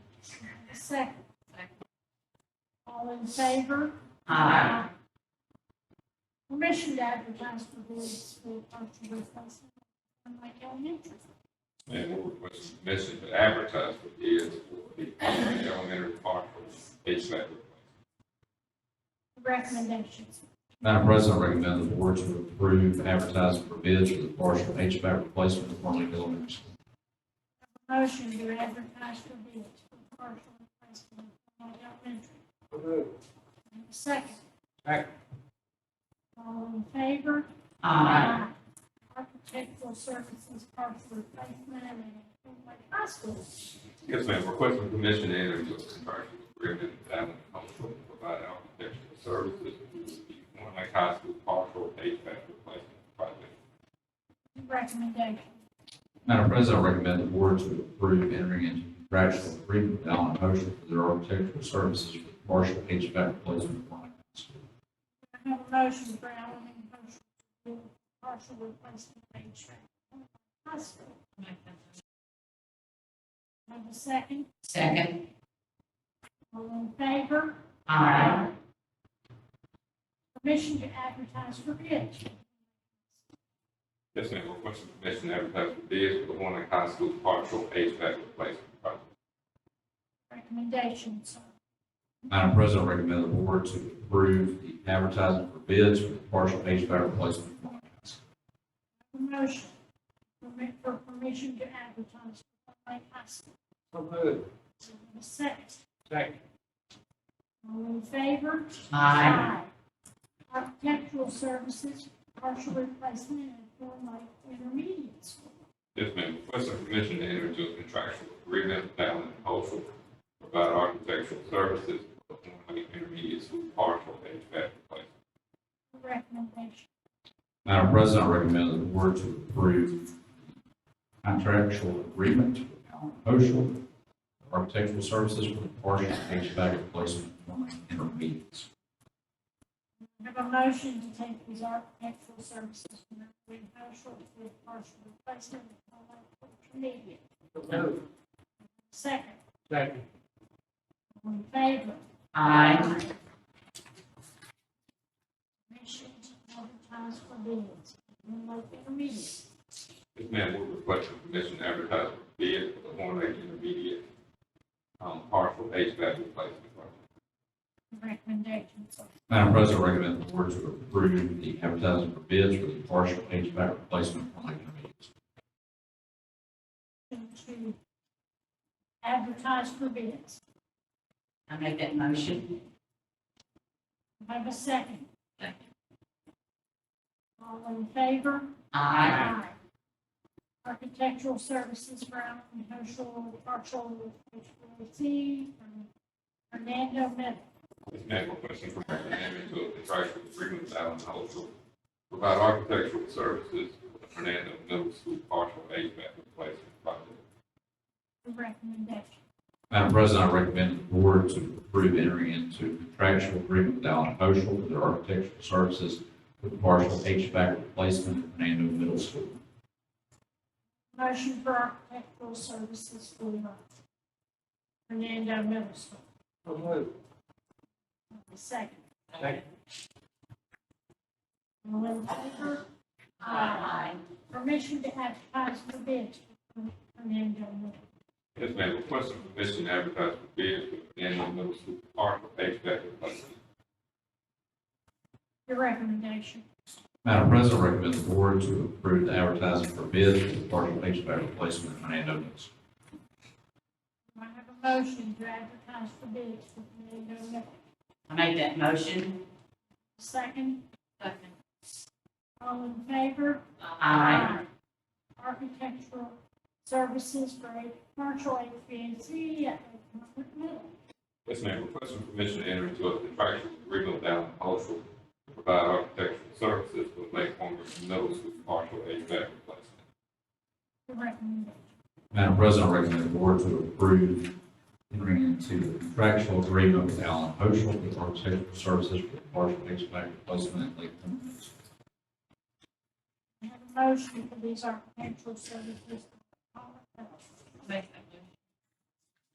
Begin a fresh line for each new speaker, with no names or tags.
Second. All in favor?
Aye.
Permission to advertise for board school cultural replacement. Unlike elementary.
And we'll request permission to advertise for bids for the elementary park for HVAC.
recommendations.
Madam President, I recommend the board to approve advertising for bids for the partial HVAC replacement of Marlin Elementary School.
Motion to advertise for bids for partial replacement of Lake Elementary. And a Second.
Second.
All in favor?
Aye.
Architectural services partial replacement at Lake High School.
Yes, ma'am, requesting permission to enter into a contractual agreement with Allen Cultural to provide architectural services for the Lake High School partial HVAC replacement project.
Recommendation.
Madam President, I recommend the board to approve entering into contractual agreement with Allen Motion for their architectural services for the partial HVAC replacement of Marlin School.
I have a motion for Allen and Motion for partial replacement of Lake High School. I Have a second.
Second.
All in favor?
Aye.
Permission to advertise for bids.
Yes, ma'am, requesting permission to advertise for bids for the Horn Lake High School partial HVAC replacement project.
Recommendations.
Madam President, I recommend the board to approve the advertising for bids for the partial HVAC replacement of Marlin School.
Motion Permit- for permission to advertise for Lake High School. So moved. Second.
Second.
All in favor?
Aye.
Aye. Architectural services, partial replacement at Thorn Lake Intermediate School.
Yes, ma'am. Requesting permission to enter into a contractual agreement with Allen Cultural to provide architectural services for the Horn Lake Intermediate School partial HVAC replacement.
Recommendation.
Madam President, I recommend the board to approve the contractual agreement with Allen Oshel for Architectural Services for the partial HVAC replacement for my intermediates.
Have a motion to take these architectural services from the Green Cultural to the partial replacement at Thorn Lake Intermediate. Second.
Second.
All in favor?
Aye.
Permission to advertise for bids. Thorn Lake Intermediate.
Yes, ma'am. We're requesting permission to advertise for bids for the Horn Lake Intermediate um, partial HVAC replacement project.
Recommendations.
Madam President, I recommend the board to approve the advertising for bids for the partial HVAC replacement for my intermediates.
To advertise for bids.
I make that motion.
Do I Have a second.
Second.
All in favor?
Aye.
Architectural services, Brown and Herschel, partial HVAC, from Fernando Miller.
Yes, ma'am. Requesting permission to enter into a contractual agreement with Allen Cultural to provide architectural services for the Fernando Middle School partial HVAC replacement project.
Recommendation.
Madam President, I recommend the board to approve entering into contractual agreement with Allen Oshel for their architectural services for the partial HVAC replacement at Fernando Middle School.
Motion for architectural services for Fernando Miller School. Second.
Second.
All in favor?
Aye.
Permission to advertise for bids for Fernando Miller.
Yes, ma'am, requesting permission to advertise for bids for the Daniel Middle School Park HVAC replacement.
Your recommendation.
Madam President, I recommend the board to approve the advertising for bids for the partial HVAC replacement at Fernando Middle School.
Do I have a motion to advertise for bids for Fernando Miller?
I make that motion.
Second,
Second.
all in favor?
Aye.
Architectural services for a partial HVAC at Lake Middle.
Yes, ma'am, requesting permission to enter into a contractual agreement with Allen Cultural to provide architectural services for the Lake Forest Middle School partial HVAC replacement.
The recommendation.
Madam President, I recommend the board to approve entering into a contractual agreement with Allen Oshel for architectural services for the partial HVAC replacement at Lake Point Middle School.
I have a motion for these architectural services. for Lake Middle.
Make that